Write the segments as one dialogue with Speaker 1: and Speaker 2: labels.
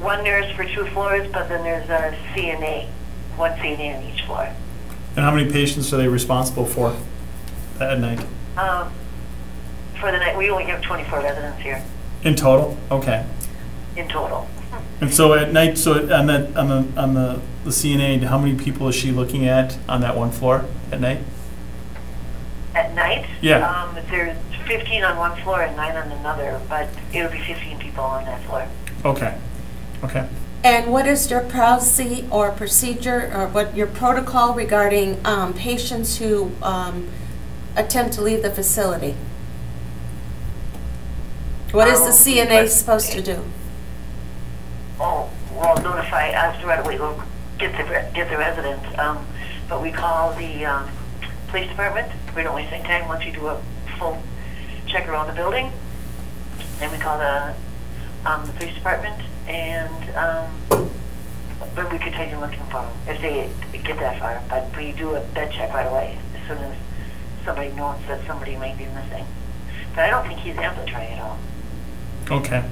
Speaker 1: one nurse for two floors, but then there's a CNA, one CNA on each floor.
Speaker 2: And how many patients are they responsible for at night?
Speaker 1: Um, For the night, we only have 24 residents here
Speaker 2: In total? Okay.
Speaker 1: in total.
Speaker 2: And so at night, so on the, on the, on the the CNA, how many people is she looking at on that one floor at night?
Speaker 1: At night?
Speaker 2: Yeah.
Speaker 1: um, There's 15 on one floor and nine on another, but it'll be 15 people on that floor.
Speaker 2: Okay, okay.
Speaker 3: And what is your policy or procedure, or what your protocol regarding um, patients who um, attempt to leave the facility? What is the
Speaker 1: Um,
Speaker 3: CNA supposed to do?
Speaker 1: Oh, well, notify us right away, we'll get the, re- get the residents. Um, But we call the um, police department, we don't waste any time, once you do a full check around the building, then we call the, um, the police department, and, um, but we continue looking for them, if they get that far. But we do a bed check right away, as soon as somebody knows that somebody might be missing. But I don't think he's ambulatory at all.
Speaker 2: Okay.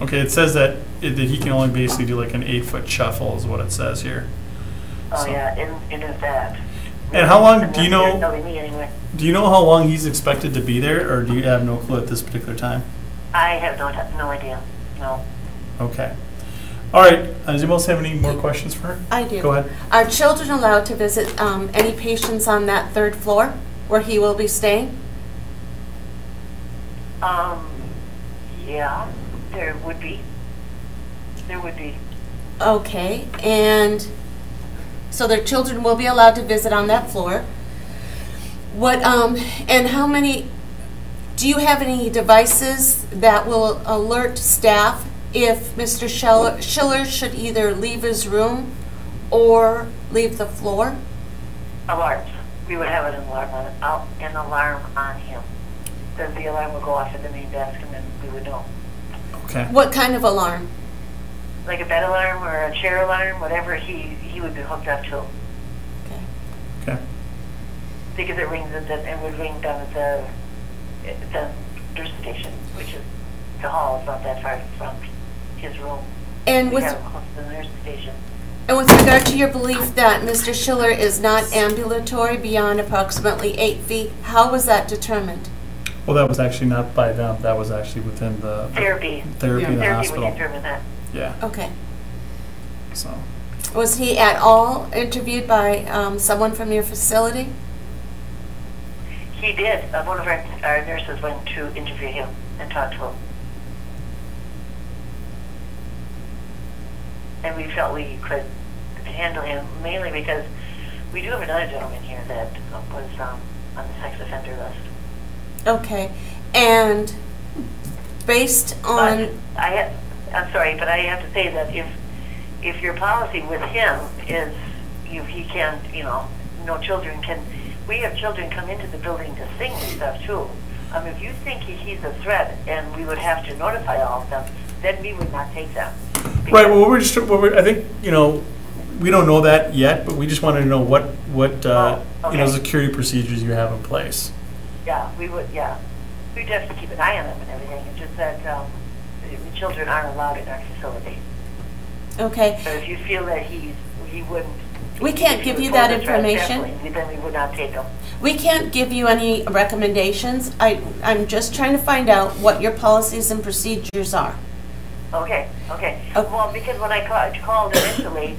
Speaker 2: Okay, it says that, it- that he can only basically do like an eight-foot shuffle is what it says here.
Speaker 1: Oh,
Speaker 2: So-
Speaker 1: yeah, and, and it's that.
Speaker 2: And how long do you know-
Speaker 1: There's nobody anywhere.
Speaker 2: Do you know how long he's expected to be there, or do you have no clue at this particular time?
Speaker 1: I have no, t- no idea, no.
Speaker 2: Okay. All right, uh, does anyone else have any more questions for her?
Speaker 3: I do.
Speaker 2: Go ahead.
Speaker 3: Are children allowed to visit um, any patients on that third floor where he will be staying?
Speaker 1: Um, yeah, there would be, there would be,
Speaker 3: Okay, and so their children will be allowed to visit on that floor. What, um, and how many, do you have any devices that will alert staff if Mr. Schell- Schiller should either leave his room or leave the floor?
Speaker 1: alarms. We would have an alarm on, out, an alarm on him. Then the alarm would go off at the main desk and then we would know.
Speaker 2: Okay,
Speaker 3: What kind of alarm?
Speaker 1: Like a bed alarm or a chair alarm, whatever he, he would be hooked up to.
Speaker 3: Okay.
Speaker 2: okay,
Speaker 1: Because it rings at the, it would ring down at the, at the nurse station, which is, the hall is not that far from his room.
Speaker 3: And
Speaker 1: We
Speaker 3: with,
Speaker 1: have him close to the nurse station.
Speaker 3: and with regard to your belief that Mr. Schiller is not ambulatory beyond approximately eight feet, how was that determined?
Speaker 2: well, that was actually not by them, that was actually within the
Speaker 1: Therapy.
Speaker 2: therapy in
Speaker 1: Therapy
Speaker 2: the
Speaker 1: would
Speaker 2: hospital.
Speaker 1: determine that.
Speaker 2: Yeah,
Speaker 3: Okay.
Speaker 2: so,
Speaker 3: Was he at all interviewed by um, someone from your facility?
Speaker 1: He did. Uh, one of our, our nurses went to interview him and talk to him. And we felt we could handle him mainly because we do have another gentleman here that was um, on the sex offender list.
Speaker 3: Okay. And based
Speaker 1: But
Speaker 3: on,
Speaker 1: I have, I'm sorry, but I have to say that if, if your policy with him is, you, he can't, you know, no children can, we have children come into the building to sing and stuff too. Um, if you think he, he's a threat and we would have to notify all of them, then we would not take them.
Speaker 2: Right, well, we're just, well, we're- I think, you know, we don't know that yet, but we just wanted to know what, what, uh,
Speaker 1: Oh,
Speaker 2: you know,
Speaker 1: okay.
Speaker 2: security procedures you have in place.
Speaker 1: Yeah, we would, yeah. We'd have to keep an eye on them and everything. It's just that, um, the children aren't allowed in our facility.
Speaker 3: okay,
Speaker 1: So if you feel that he's, he wouldn't.
Speaker 3: We can't
Speaker 1: if he
Speaker 3: give
Speaker 1: was
Speaker 3: you that
Speaker 1: holding a threat,
Speaker 3: information?
Speaker 1: definitely, Then we would not take him.
Speaker 3: we can't give you any recommendations. I, I'm just trying to find out what your policies and procedures are.
Speaker 1: Okay, okay.
Speaker 3: Oh.
Speaker 1: Well, because when I ca- called initially,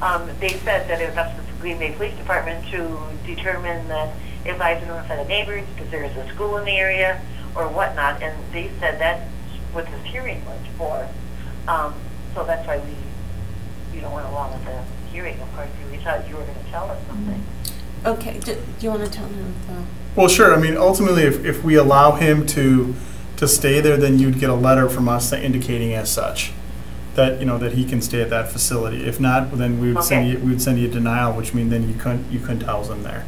Speaker 1: um, they said that it was up to the Green Bay Police Department to determine that if I have to notify the neighbors, because there is a school in the area or whatnot, and they said that's what this hearing was for. Um, so that's why we, you know, went along with the hearing, of course, we thought you were gonna tell us something.
Speaker 3: Okay, do, do you want to tell him? uh,
Speaker 2: Well, sure, I mean, ultimately, if, if we allow him to, to stay there, then you'd get a letter from us indicating as such, that, you know, that he can stay at that facility. If not, then we would send you,
Speaker 1: Okay.
Speaker 2: we would send you a denial, which means then you couldn't, you couldn't house him there.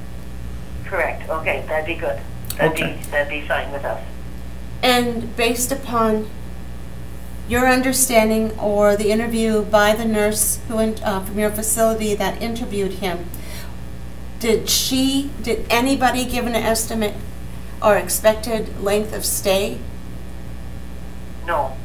Speaker 1: Correct, okay, that'd be good. That'd
Speaker 2: Okay.
Speaker 1: be, that'd be fine with us.
Speaker 3: And based upon your understanding or the interview by the nurse who, in- uh, from your facility that interviewed him, did she, did anybody give an estimate or expected length of stay?
Speaker 1: No,